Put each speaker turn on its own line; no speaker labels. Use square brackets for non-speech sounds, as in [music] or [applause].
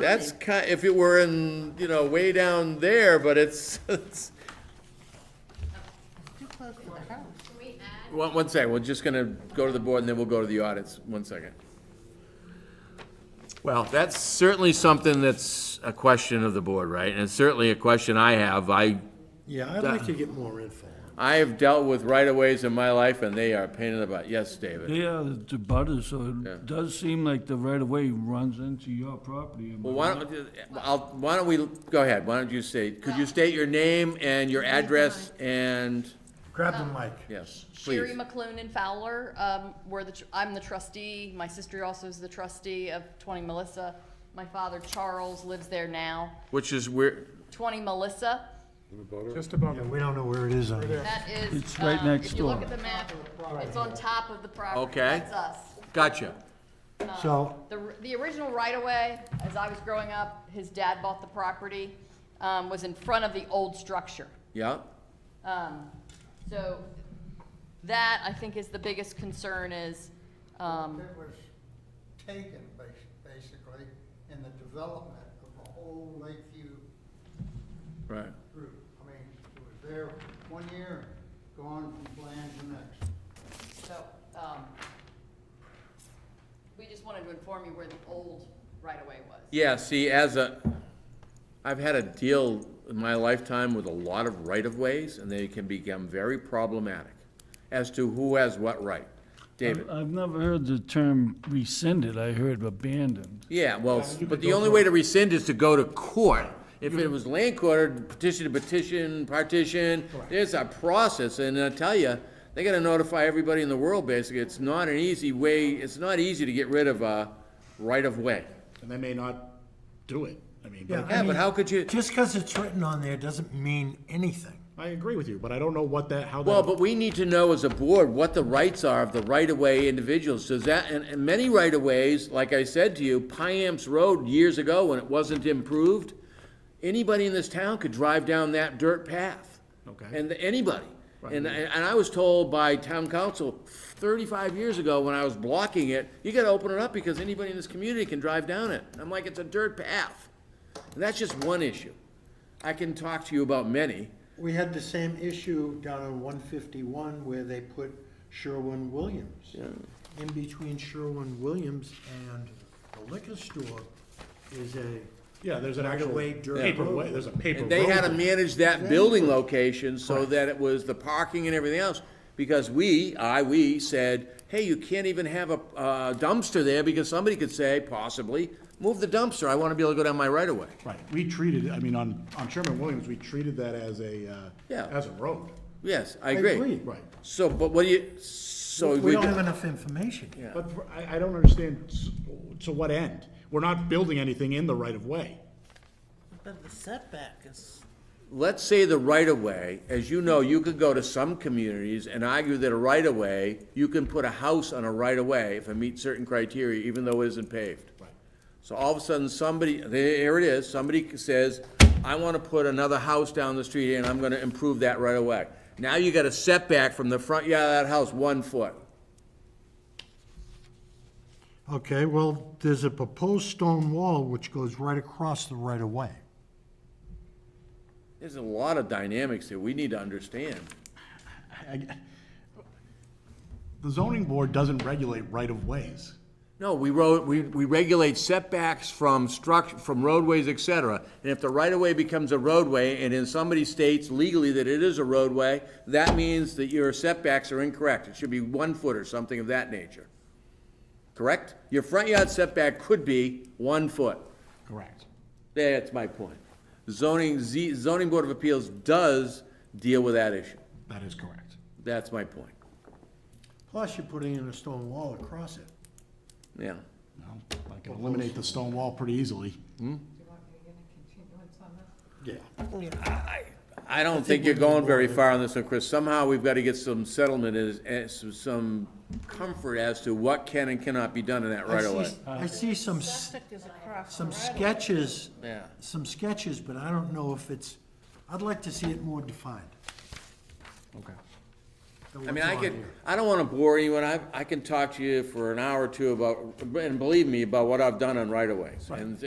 That's ki, if it were in, you know, way down there, but it's, [laughs] it's,
Too close to the house.
one, one second, we're just gonna go to the board and then we'll go to the audits, one second. Well, that's certainly something that's a question of the board, right? And it's certainly a question I have. I,
Yeah, I'd like to get more info.
I have dealt with right-of-ways in my life and they are a pain in the butt. Yes, David?
Yeah, the butters, so it does seem like the right of way runs into your property.
Well, why don't, I'll, why don't we, go ahead, why don't you say, could you state your name and your address and,
Grab the mic.
yes,
Sherry
please?
McLuhan and Fowler, um, were the, tr- I'm the trustee, my sister also is the trustee of twenty Melissa. My father Charles lives there now,
Which is where,
twenty Melissa,
Just above
Yeah, we don't know where it is on here.
that is.
It's right
um,
next
If you look
door.
at the map, it's on top of the property.
Okay.
That's us.
gotcha.
So,
The, r- the original right-of-way, as I was growing up, his dad bought the property, um, was in front of the old structure.
Yeah,
Um, so that, I think, is the biggest concern is, um,
It was taken bas- basically in the development of the whole Lakeview
right.
group. I mean, it was there one year, gone from plan to next.
So, um, we just wanted to inform you where the old right-of-way was.
Yeah, see, as a, I've had a deal in my lifetime with a lot of right-of-ways, and they can become very problematic as to who has what right. David?
I've never heard the term rescinded, I heard abandoned.
Yeah, well, but the only way to rescind is to go to court. If
Mm-hmm.
it was land court, petition to petition, partition, there's a process, and I tell you, they gotta notify everybody in the world, basically. It's not an easy way, it's not easy to get rid of a right-of-way.
And they may not do it. I mean,
yeah,
but
Yeah,
I
but
mean,
how could you?
just because it's written on there doesn't mean anything.
I agree with you, but I don't know what that, how that.
Well, but we need to know as a board what the rights are of the right-of-way individuals. Does that, and, and many right-of-ways, like I said to you, Piamps Road years ago when it wasn't improved, anybody in this town could drive down that dirt path.
Okay.
And anybody. And, and I was told by town council thirty-five years ago when I was blocking it, you gotta open it up because anybody in this community can drive down it. I'm like, it's a dirt path. And that's just one issue. I can talk to you about many.
We had the same issue down on one fifty-one where they put Sherwin-Williams.
In between Sherwin-Williams and the liquor store is a
Yeah, there's an actual
right-of-way dirt
paper way,
road.
there's a paper
And
road.
they had to
there.
manage that building location so that it was the parking and everything else. Because we, I, we said, hey, you can't even have a uh, dumpster there because somebody could say, possibly, move the dumpster, I wanna be able to go down my right of way.
Right, we treated, I mean, on, on Sherman Williams, we treated that as a, uh,
Yeah.
as a road.
Yes, I agree.
agree.
Right.
So, but what do you, so
We
we,
don't have enough information. Yeah.
But for- I, I don't understand s- to what end? We're not building anything in the right of way.
But the setback is.
let's say the right of way, as you know, you could go to some communities and argue that a right of way, you can put a house on a right of way if it meets certain criteria, even though it isn't paved. So all of a sudden, somebody, there it is, somebody says, I wanna put another house down the street and I'm gonna improve that right away. Now you got a setback from the front yard of that house, one foot.
Okay, well, there's a proposed stone wall which goes right across the right-of-way.
There's a lot of dynamics here we need to understand.
I- The zoning board doesn't regulate right of ways.
No, we wrote, we, we regulate setbacks from struct, from roadways, et cetera. And if the right-of-way becomes a roadway, and in somebody states legally that it is a roadway, that means that your setbacks are incorrect. It should be one foot or something of that nature. Correct? Your front yard setback could be one foot.
Correct.
That's my point. Zoning, Z, zoning board of appeals does deal with that issue.
That is correct.
That's my point.
Plus, you're putting in a stone wall across it.
Yeah.
Well, I can eliminate the stone wall pretty easily.
I don't think you're going very far on this one, Chris. Somehow, we've got to get some settlement as, as, some comfort as to what can and cannot be done in that
I
right
see-
away.
I see some, s-
Septic is across the
some
right of way.
sketches,
Yeah.
some sketches, but I don't know if it's, I'd like to see it more defined.
Okay.
than
I mean,
what's
I
on
could,
here.
I don't want to bore anyone. I, I can talk to you for an hour or two about, and believe me, about what I've done on right of ways. And